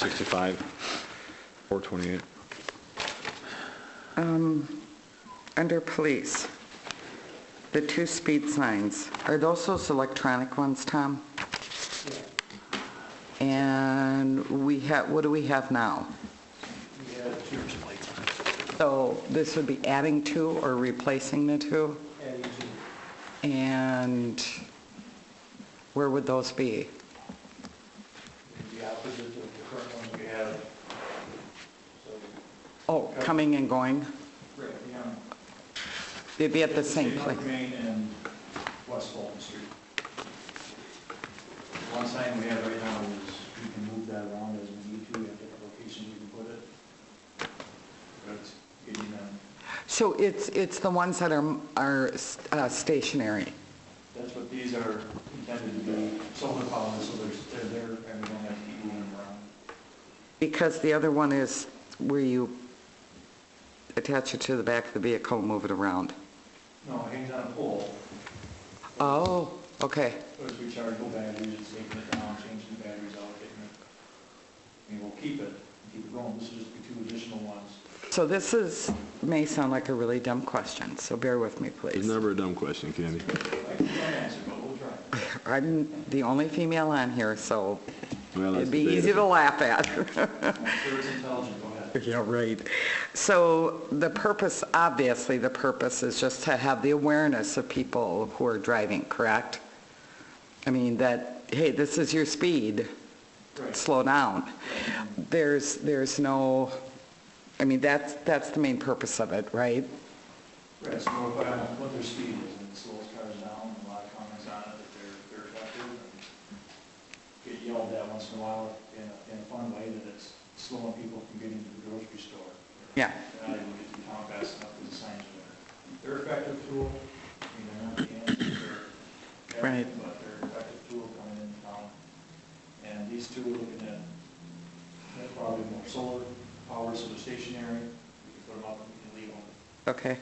265, 428. Under police, the two speed signs, are those those electronic ones, Tom? And we have, what do we have now? So this would be adding two or replacing the two? And where would those be? the opposite of the current ones we have. So, Oh, coming and going? right beyond. They'd be at the same North place? Main and West Fulton Street. One sign we have right now is we can move that around as we need to, we have different locations we can put it. But it's getting, um, So it's, it's the ones that are, are uh, stationary? that's what these are intended to be, solar power, so there's, they're there and uh, we don't have to keep moving them around. Because the other one is where you attach it to the back of the vehicle and move it around. No, it hangs on a pole, Oh, okay. So as we charge the batteries, it's taking it down, changing the batteries out, getting it, I mean, we'll keep it, keep it going, this is just the two additional ones. So this is, may sound like a really dumb question, so bear with me, It's please. never a dumb question, Candy. I can't answer, but we'll try. I'm the only female on here, so Well, that's it'd be debatable. easy to laugh at. I'm sure it's intelligent, go ahead. Yeah, right. So the purpose, obviously, the purpose is just to have the awareness of people who are driving, correct? I mean, that, hey, this is your speed. Right, slow down. There's, there's no, I mean, that's, that's the main purpose of it, right? right, so what, I'm- what their speed is, and it slows cars down, and a lot of comments on it, that they're, they're effective, and get yelled at once in a while in a, in a fun way, that it's slowing people from getting to the grocery store. Yeah. They're not able to get through town fast enough because the signs are there. They're effective tool, you know, not the answer, they're Right. everything, but they're effective tool coming in town. And these two are looking at, they're probably more solar power, so they're stationary, we can put them up and we can leave them. Okay.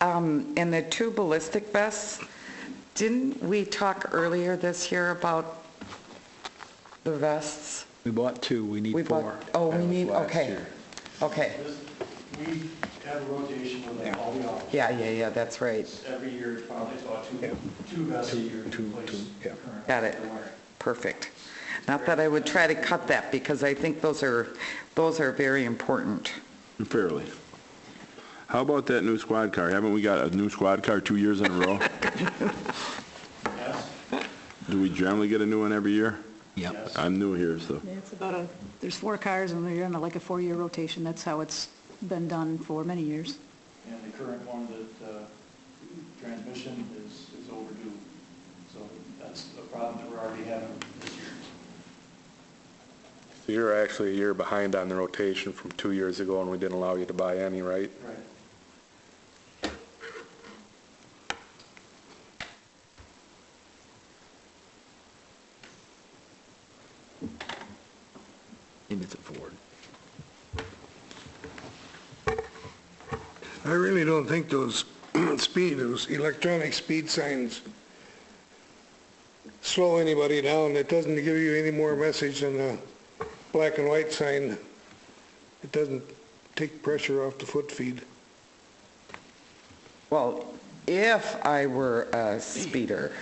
Um, And the two ballistic vests, didn't we talk earlier this year about the vests? We bought two, we We need bought- four. Oh, That we was need, last okay, year. okay. This, we have a rotation with like all the officers. Yeah, yeah, yeah, that's right. Every year, it's probably about two, Yeah. two vests a Two- year to two- replace. two, yeah. current Got it. they're wearing. Perfect. Not that I would try to cut that, because I think those are, those are very important. Fairly. How about that new squad car? Haven't we got a new squad car two years in a row? Yes, Do we generally get a new one every year? Yep. yes. I'm new here, so. Yeah, it's about a, there's four cars and they're in like a four-year rotation. That's how it's been done for many years. And the current one that, uh, transmission is, is overdue. So that's a problem that we're already having this year. So You're actually a year behind on the rotation from two years ago, and we didn't allow you to buy any, right? Right. Maybe it's a Ford. I really don't think those speed, those electronic speed signs slow anybody down. It doesn't give you any more message than a black and white sign. It doesn't take pressure off the foot feed. Well, if I were a speeder,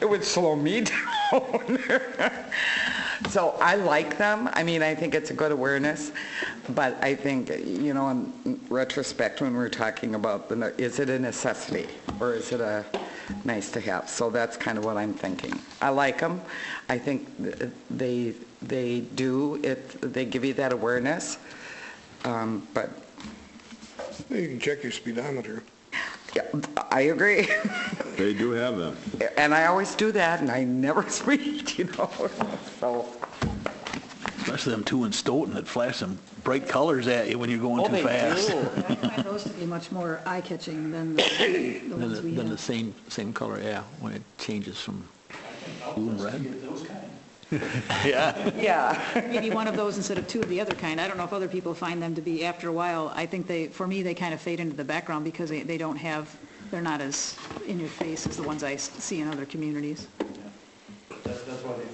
it would slow me down. So I like them. I mean, I think it's a good awareness, but I think, you know, in retrospect, when we're talking about, the ne- is it a necessity or is it a nice to have? So that's kind of what I'm thinking. I like them. I think th- they, they do, it, they give you that awareness, Um, but You can check your speedometer. yeah, I agree. They do have them. And I always do that, and I never speak, you know, so. Especially them two in Stoughton that flash some bright colors at you when you're Oh, going too fast. I find those to be much more eye-catching than the the Than ones the- we than the have. same, same color, yeah, when it changes from, I think outfits red. to get those kind. yeah. Yeah. Maybe one of those instead of two of the other kind. I don't know if other people find them to be, after a while, I think they, for me, they kind of fade into the background because they, they don't have, they're not as in your face as the ones I s- see in other communities. That's, that's why they